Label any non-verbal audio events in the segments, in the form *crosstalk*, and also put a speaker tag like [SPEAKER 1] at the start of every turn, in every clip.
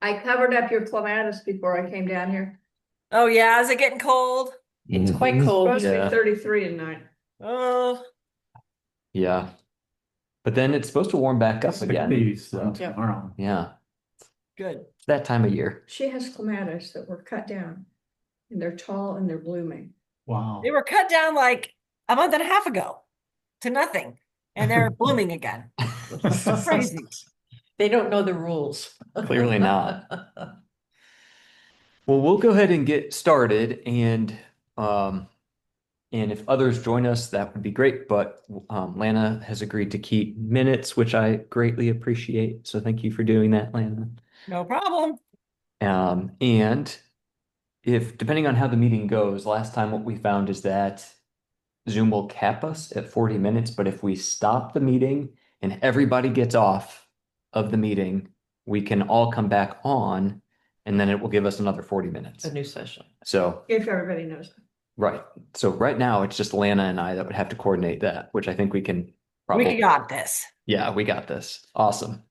[SPEAKER 1] I covered up your clematis before I came down here.
[SPEAKER 2] Oh yeah, is it getting cold?
[SPEAKER 3] It's quite
[SPEAKER 1] Supposed
[SPEAKER 4] Oh,
[SPEAKER 3] cold.
[SPEAKER 1] to be
[SPEAKER 3] Yeah.
[SPEAKER 1] thirty-three tonight.
[SPEAKER 3] Uh.
[SPEAKER 2] Oh,
[SPEAKER 3] Yeah. But then it's supposed to warm back up again.
[SPEAKER 4] Sixties
[SPEAKER 3] so-
[SPEAKER 4] uh, tomorrow.
[SPEAKER 3] Yeah.
[SPEAKER 2] good.
[SPEAKER 3] It's that time of
[SPEAKER 1] *laughs*
[SPEAKER 3] year.
[SPEAKER 1] She has clematis that were cut down. And they're tall and they're blooming.
[SPEAKER 4] Wow.
[SPEAKER 2] They were cut down like a month and a half ago to nothing, and
[SPEAKER 3] *laughs*
[SPEAKER 2] they're blooming again. *laughs* It's crazy.
[SPEAKER 5] They don't know the rules. *laughs*
[SPEAKER 3] Clearly *laughs* not. Well, we'll go ahead and get started and um and if others join us, that would be great, but um Lana has agreed to keep minutes, which I greatly appreciate. So thank you for doing that, Lana.
[SPEAKER 2] No problem.
[SPEAKER 3] Um, and if, depending on how the meeting goes, last time what we found is that Zoom will cap us at 40 minutes, but if we stop the meeting and everybody gets off of the meeting, we can all come back on and then it will give us another 40 minutes.
[SPEAKER 5] A new session.
[SPEAKER 3] So,
[SPEAKER 1] If everybody knows.
[SPEAKER 3] right. So right now it's just Lana and I that would have to coordinate that, which I think we can probably.
[SPEAKER 2] We got this.
[SPEAKER 3] Yeah, we got this. Awesome.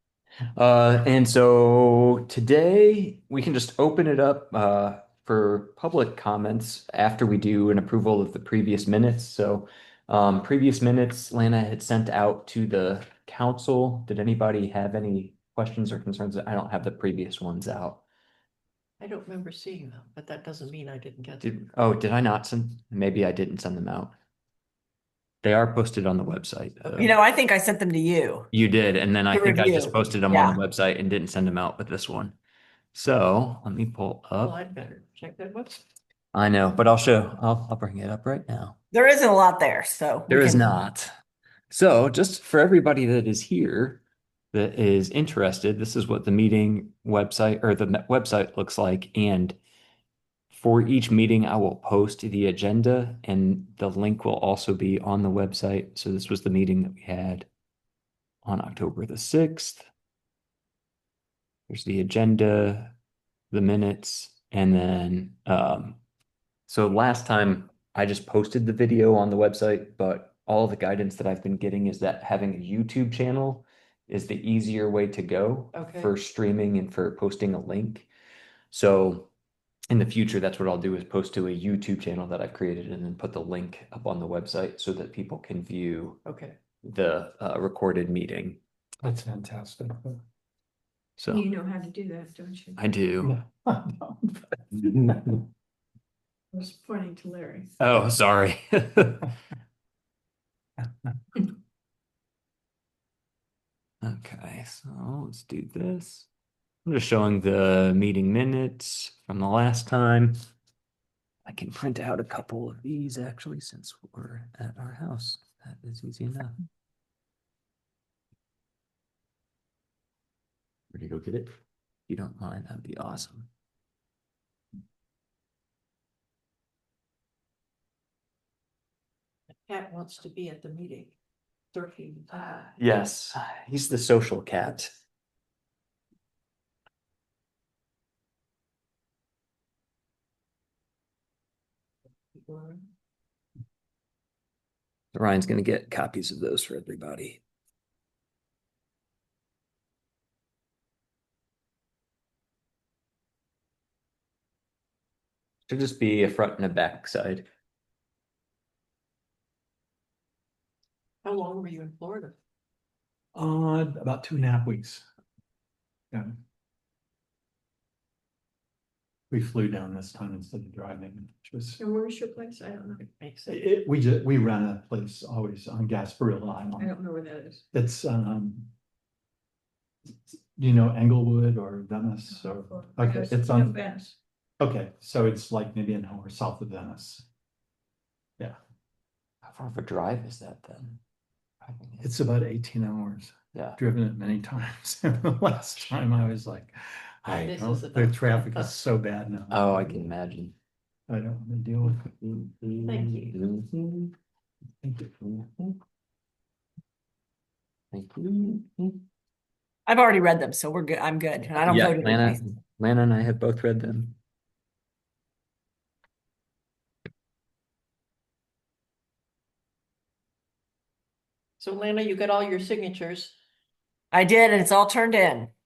[SPEAKER 3] Uh, and so today we can just open it up uh, for public comments after we do an approval of the previous minutes. So um, previous minutes Lana had sent out to the council. Did anybody have any questions or concerns? I don't have the previous ones out.
[SPEAKER 5] I don't remember seeing them, but that doesn't mean I didn't get them.
[SPEAKER 3] Did, oh, did I not send? Maybe I didn't send them out. They are posted on the website. though.
[SPEAKER 2] You know, I think I sent them to you.
[SPEAKER 3] You did, and then I
[SPEAKER 2] To
[SPEAKER 3] think I just
[SPEAKER 2] review.
[SPEAKER 3] posted them on the website and didn't send them out with this one. So let me pull
[SPEAKER 5] Well,
[SPEAKER 3] up.
[SPEAKER 5] I'd better check that website.
[SPEAKER 3] I know, but I'll show, I'll, I'll bring it up right now.
[SPEAKER 2] There isn't a lot there, so we
[SPEAKER 3] There is
[SPEAKER 2] can-
[SPEAKER 3] not. So just for everybody that is here, that is interested, this is what the meeting website or the me- website looks like. And for each meeting, I will post the agenda and the link will also be on the website. So this was the meeting that we had on October the 6th. There's the agenda, the minutes, and then um, so last time I just posted the video on the website, but all the guidance that I've been getting is that having a YouTube channel is the easier way to go
[SPEAKER 5] Okay.
[SPEAKER 3] for streaming and for posting a link. So in the future, that's what I'll do is post to a YouTube channel that I've created and then put the link up on the website so that people can view
[SPEAKER 5] Okay.
[SPEAKER 3] the uh, recorded meeting.
[SPEAKER 4] That's fantastic.
[SPEAKER 3] So
[SPEAKER 1] You know how to do that, don't you?
[SPEAKER 3] I do.
[SPEAKER 1] I was pointing to Larry.
[SPEAKER 4] Uh,
[SPEAKER 3] Oh, sorry. *laughs* Okay, so let's do this. I'm just showing the meeting minutes from the last time. I can print out a couple of these actually, since we're at our house. That is easy enough. Ready to go get it? If you don't mind, that'd be awesome.
[SPEAKER 5] Cat wants to be at the meeting. uh, Thirteen.
[SPEAKER 3] Yes, he's the social cat. Ryan's gonna get copies of those for everybody. Should just be a front and a back side.
[SPEAKER 5] How long were you in Florida?
[SPEAKER 4] Uh, about two and a half weeks. Yeah. We flew down this time instead of driving, which was,
[SPEAKER 1] And where's your place? I don't know.
[SPEAKER 5] Makes sense.
[SPEAKER 4] it, we just, we ran a place always on Gasparilla
[SPEAKER 1] I
[SPEAKER 4] Island.
[SPEAKER 1] don't know where that is.
[SPEAKER 4] It's, um, do you know Englewood or Venice or, okay,
[SPEAKER 1] Yes,
[SPEAKER 4] it's on,
[SPEAKER 1] Venice.
[SPEAKER 4] okay, so it's like maybe an hour south of Venice.
[SPEAKER 3] How far of a drive is that then? I think
[SPEAKER 4] It's about eighteen hours.
[SPEAKER 3] yeah.
[SPEAKER 4] driven it many *laughs* times. The Last time I was like, I
[SPEAKER 5] This
[SPEAKER 4] don't,
[SPEAKER 5] is
[SPEAKER 4] the
[SPEAKER 5] enough."
[SPEAKER 4] traffic is so bad now.
[SPEAKER 3] Oh, I can Mm-hmm. imagine.
[SPEAKER 4] I don't want to deal with it.
[SPEAKER 5] Thank you.
[SPEAKER 4] Thank you.
[SPEAKER 3] Thank you.
[SPEAKER 2] I've already read them, so we're good. I'm good. And I don't
[SPEAKER 3] Yeah,
[SPEAKER 2] vote.
[SPEAKER 3] Lana, Lana and I have both read them.
[SPEAKER 5] So Lana, you got all your signatures.
[SPEAKER 2] I did, and it's all turned in.